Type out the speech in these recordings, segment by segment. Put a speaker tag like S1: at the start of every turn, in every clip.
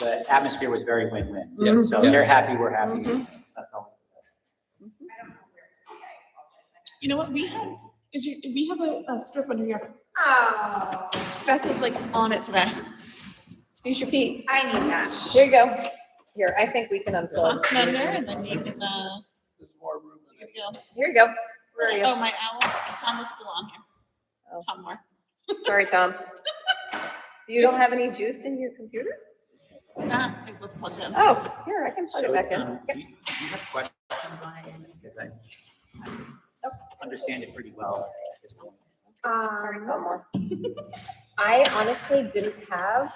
S1: the atmosphere was very win-win.
S2: Yeah.
S1: So
S2: Yeah.
S1: they're happy, we're happy. That's all.
S3: You know what, we have, is your, we have a, a strip under here.
S4: Oh,
S3: Beth is like on it today. Use your feet.
S4: I need that.
S5: Here you go. Here, I think we can unfold.
S3: Toss them under and then you can, uh, here we go.
S5: Here you go. Where are
S3: Oh,
S5: you?
S3: my owl, Tom is still on here.
S5: Oh.
S3: Tom Moore.
S5: Sorry, Tom. You don't have any juice in your computer?
S3: That is what's plugged in.
S5: Oh, here, I can plug it
S1: So,
S5: back in.
S1: um, Do you do you have questions on it, Amy? Because I I understand it pretty well. at this point.
S5: Sorry,
S4: Um,
S5: Tom. Moore.
S4: I honestly didn't have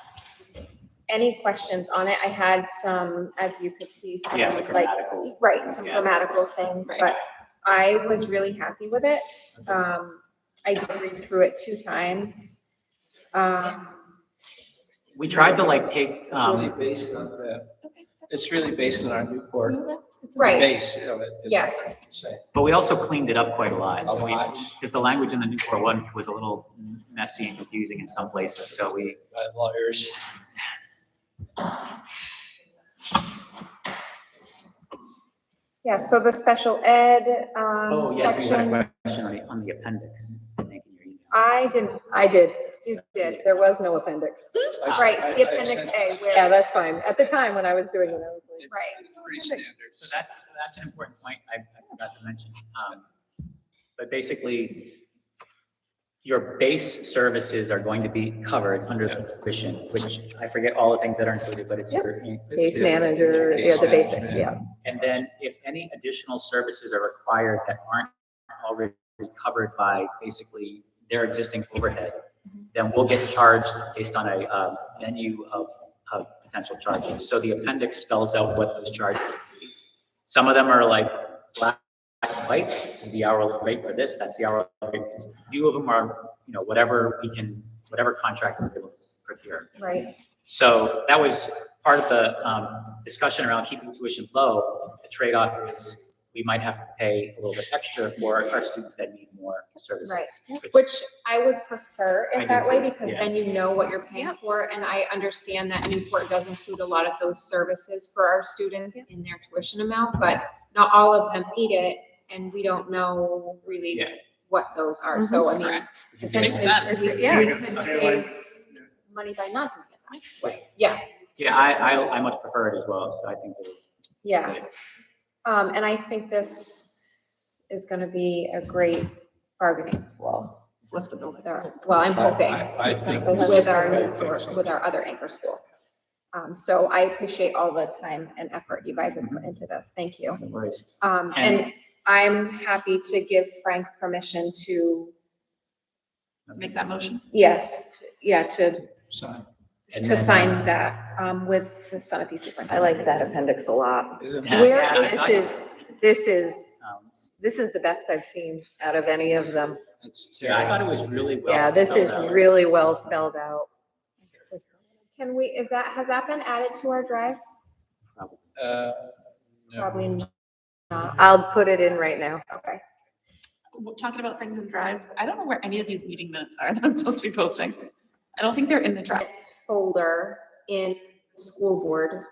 S4: any questions on it. I had some, as you could see, some
S1: Yeah, the
S4: like,
S1: grammatical.
S4: right, some
S1: Yeah.
S4: grammatical things,
S3: Right.
S4: but I was really happy with it. Um, I did read through it two times. Um,
S1: We tried to like take,
S6: Really
S1: um,
S6: based on the, it's really based on our Newport
S4: right,
S6: base. you know, is what
S4: Yes.
S6: I'm trying to say.
S1: but we also cleaned it up quite a lot.
S6: A lot.
S1: Because the language in the Newport one was a little messy and confusing in some places, so we,
S6: By lawyers.
S4: yeah, so the special ed,
S1: oh,
S4: um,
S1: yes, we had
S4: section,
S1: a question on the, on the appendix. I think, in your email.
S4: I didn't,
S5: I did.
S4: you did,
S5: There was no appendix.
S6: I s- I-
S4: right, the
S6: I
S4: appendix
S6: sent-
S4: A,
S5: Yeah,
S4: where,
S5: that's fine. At the time when I was doing it, I was like,
S6: it's
S4: Right.
S6: Pretty standard.
S1: So that's, that's an important point I I forgot to mention. Um, But basically, your base services are going to be covered under the tuition, which I forget all the things that are included, but it's your.
S5: case manager, yeah, the
S6: basic.
S5: basics, yeah.
S1: And then if any additional services are required that aren't already covered by basically their existing overhead, then we'll get charged based on a um, menu of, of potential charges. So the appendix spells out what those charges would be. Some of them are like black and white, this is the hourly rate for this, that's the hourly rate. It's- Few of them are, you know, whatever we can, whatever contract we're able to procure.
S4: right,
S1: So that was part of the um, discussion around keeping tuition low. The trade-off is we might have to pay a little bit extra for our students that need more services.
S4: Right.
S1: Which-
S4: Which I would prefer
S1: I do
S4: it that way
S1: too,
S4: because
S1: yeah.
S4: then you know what you're paying for. And I understand that Newport does include a lot of those services for our students in their tuition amount, but not all of them need it. And we don't know really
S1: Yeah.
S4: what those are. So I mean,
S3: Correct.
S1: If you think-
S4: essentially,
S3: sense.
S4: we
S5: Yeah.
S4: we could save money by not doing it that way. Yeah,
S1: Yeah, I, I, I much prefer it as well, so I think. that-
S4: yeah. Um, and I think this is gonna be a great bargaining tool.
S1: Lift the
S4: with
S1: building.
S4: our- Well, I'm
S6: I-
S4: hoping.
S6: I I think.
S5: Those
S4: with our,
S6: I
S4: new
S6: think
S4: source-
S6: so.
S4: with our other anchor school. Um, so I appreciate all the time and effort you guys have put into this. Thank you.
S1: No worries.
S4: Um, and I'm happy to give Frank permission to,
S3: Make that motion.
S4: yes, to- yeah, to,
S6: Sign.
S1: And
S4: to
S1: then-
S4: sign that, um, with the Sunapee
S5: I
S4: superintendent.
S5: like that appendix a lot.
S6: Isn't
S1: Yeah.
S6: it?
S5: Where,
S1: I- I-
S5: this is, this is,
S1: Um,
S5: this is the best I've seen out of any of them.
S6: It's
S1: Yeah, I
S6: terrible.
S1: thought it was really well.
S5: Yeah, this is
S1: spelled out.
S5: really well spelled out.
S4: Can we, is that, has that been added to our drive?
S6: Uh, no.
S4: Probably not.
S5: Uh, I'll put it in right now.
S4: Okay.
S3: We're Talking about things in drives, I don't know where any of these meeting minutes are that I'm supposed to be posting. I don't think they're in the drive,
S4: It's folder in school board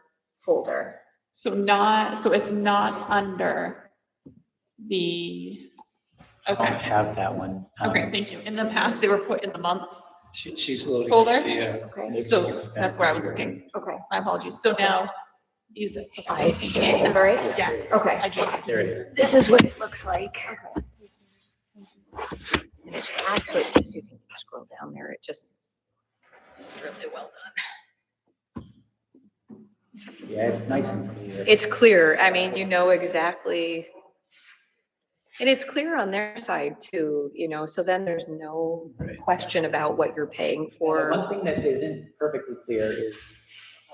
S4: folder.
S3: so not, so it's not under the,
S1: I don't
S3: okay,
S1: have that one. Um,
S3: okay, thank you. In the past, they were put in the month,
S6: She, she's loading.
S3: Folder?
S6: the, uh,
S4: Okay,
S1: maybe
S3: so
S1: it's been
S3: that's where I was
S1: computer.
S3: looking.
S4: okay.
S3: My apologies. So now, use it.
S5: I
S4: Is that all right?
S3: Yes,
S4: Okay.
S3: I just,
S1: There it is.
S5: This is what it looks like.
S4: Okay.
S5: It's actually, just you can scroll down there, it just. It's really well done.
S1: Yeah, it's nice and clear.
S5: It's clear, I mean, you know exactly. And it's clear on their side too, you know, so then there's no
S6: Right.
S5: question about what you're paying
S1: Well,
S5: for.
S1: One thing that isn't perfectly clear is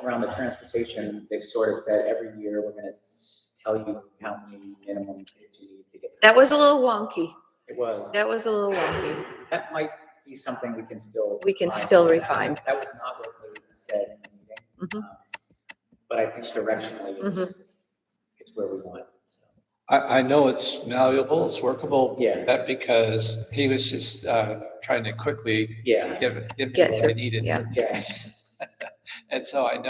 S1: around the transportation, they've sort of said every year, we're gonna s- tell you how many minimum kids you need to get.
S5: That was a little wonky,
S1: It was,
S5: that was a little wonky.
S1: that might be something we can still.
S5: We can
S1: refine.
S5: still refine.
S1: That was not what they said in the meeting.
S5: Mhm.
S1: Um, But I think directionally, it's,
S5: Mm-hmm.
S1: it's where we want. it, so.
S6: I, I know it's malleable, it's workable.
S1: Yeah.
S6: That because he was just, uh, trying to quickly
S1: Yeah.
S6: give,
S5: Get
S6: give people what
S5: through,
S6: they needed.
S5: yeah.
S1: Yeah.
S6: And so I know